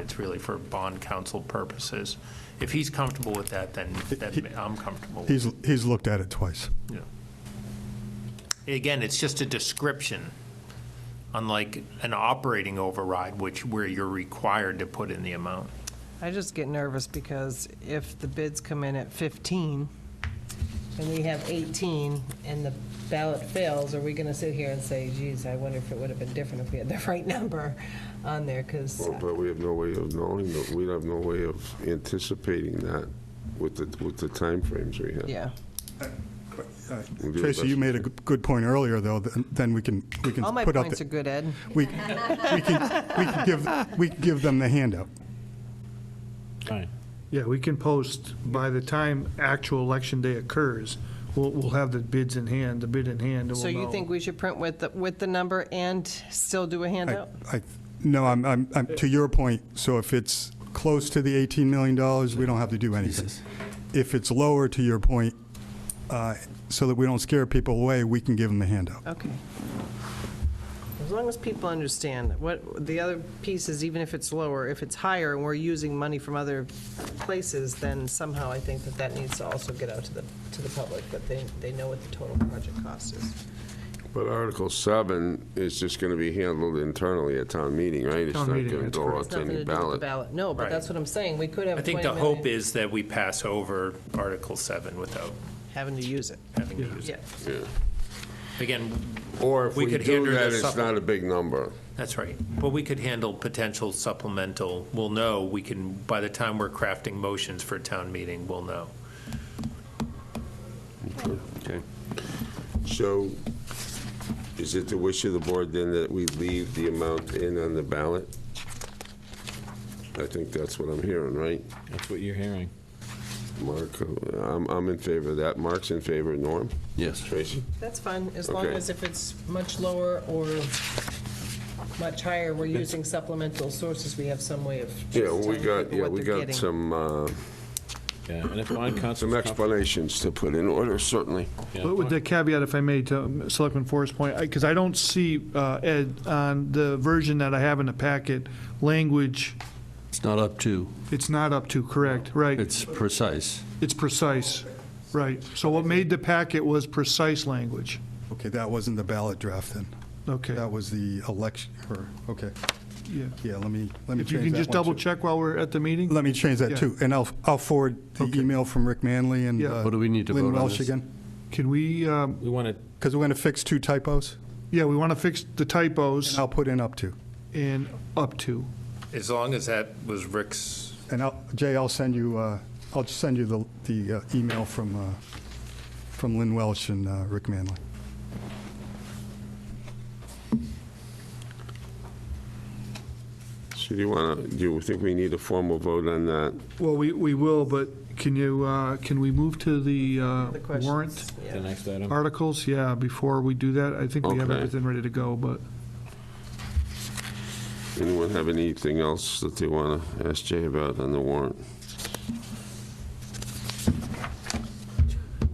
it's really for bond counsel purposes. If he's comfortable with that, then, then I'm comfortable with it. He's, he's looked at it twice. Yeah. Again, it's just a description, unlike an operating override, which where you're required to put in the amount. I just get nervous because if the bids come in at 15 and we have 18 and the ballot fails, are we going to sit here and say, geez, I wonder if it would have been different if we had the right number on there? Because, Well, But we have no way of knowing, that- we have no way of anticipating that with the, with the timeframes we have. yeah. We'll do the Tracy, best you we made a g- good point earlier, though, th- then we can, we can All my put out, points are the- good, Ed. we, we can, we can give, we can give them the handout. Fine. Yeah, we can post, by the time actual election day occurs, we'll, we'll have the bids in hand, the bid in hand, and we'll So you know. think we should print with, the with the number and still do a I, handout? I- no, I'm, I'm, I'm- to your point, so if it's close to the $18 million, we don't have to do anything. If it's lower, to your point, uh, so that we don't scare people away, we can give them the handout. Okay. As long as people understand, what, the other piece is even if it's lower, if it's higher and we're using money from other places, then somehow I think that that needs to also get out to the, to the public, that they, they know what the total project cost is. But Article 7 is just going to be handled internally at town meeting, right? It's not Town going meeting, to that's go correct. out It's to nothing to any do with the ballot. ballot. No, but that's what I'm saying, we could have I think 20 the hope million is that we pass over Article 7 without Having to use it, having to use yeah. it. Again, Or if We we could do handle that, the it's supple- not a big number. that's right, but we could handle potential supplemental, we'll know, we can, by the time we're crafting motions for town meeting, we'll know. Okay. So is it the wish of the board then that we leave the amount in on the ballot? I think that's what I'm hearing, right? That's what you're hearing. Mark, uh, I'm, I'm in favor of that. Mark's in favor, Norm? Yes. Tracy? That's fine, as long Okay. as if it's much lower or much higher, we're using supplemental sources, we have some way of Yeah, just well, we telling got, people yeah, what we they're got getting. some, uh, Yeah, and if bond council. some explanations to put in order, certainly. But with the caveat, if I may, to um, Selectman Forrest's point, because I don't see, uh, Ed, on the version that I have in the packet, language, It's not up to, it's not up to, correct, right? it's precise. It's precise, right. So what made the packet was precise language. Okay, that wasn't the ballot draft then. Okay, That was the election, or, okay, yeah. yeah, let me, let me If you change can just that one, double too. check while we're at the meeting? Let me change that Yeah. too, and I'll, I'll forward the Okay. email from Rick Manley and Yeah. uh, What do we need to Lynn vote on Welsh this? again, Can we, um, We want to, because we're going to fix two typos, yeah, we want to fix the and typos I'll put in up to. and up to. As long as that was Rick's And I'll, Jay, I'll send you, uh, I'll just send you the, the uh, email from, uh, from Lynn Welsh and uh, Rick Manley. So do you want to, do you think we need a formal vote on that? Well, we, we will, but can you, uh, can we move to the uh, The questions, warrant yeah. the next item, articles? Yeah, before we do that, I think we have Okay. everything ready to go, but Anyone have anything else that they want to ask Jay about on the warrant?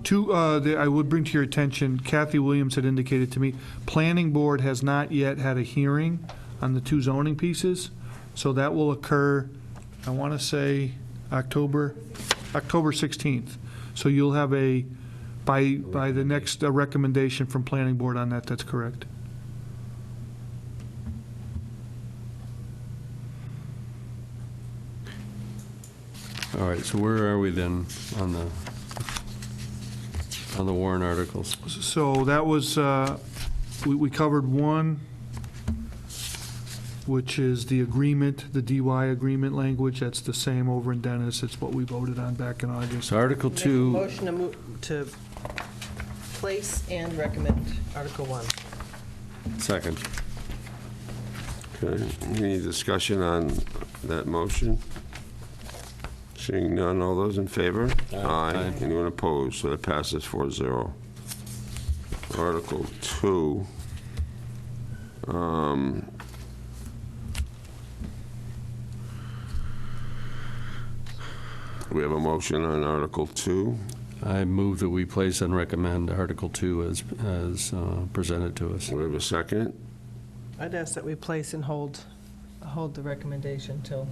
two, uh, the- I would bring to your attention, Kathy Williams had indicated to me, Planning Board has not yet had a hearing on the two zoning pieces, so that will occur, I want to say, October, October 16th. So you'll have a, by, by the next uh, recommendation from Planning Board on that, that's correct. All right, so where are we then on the, on the Warren articles? So that was, uh, we we covered one, which is the agreement, the DY agreement language. That's the same over in Dennis. It's what we voted on back in August. So Article Make a 2, Motion to move, to place and recommend Article 1. second. Okay, any discussion on that motion? Seeing none, all those in favor? Aye. Anyone opposed? So that passes 4-0. Article 2. Um, We have a motion on Article 2. I move that we place and recommend Article 2 as, as uh, presented to us. Do we have a second? I'd ask that we place and hold, hold the recommendation till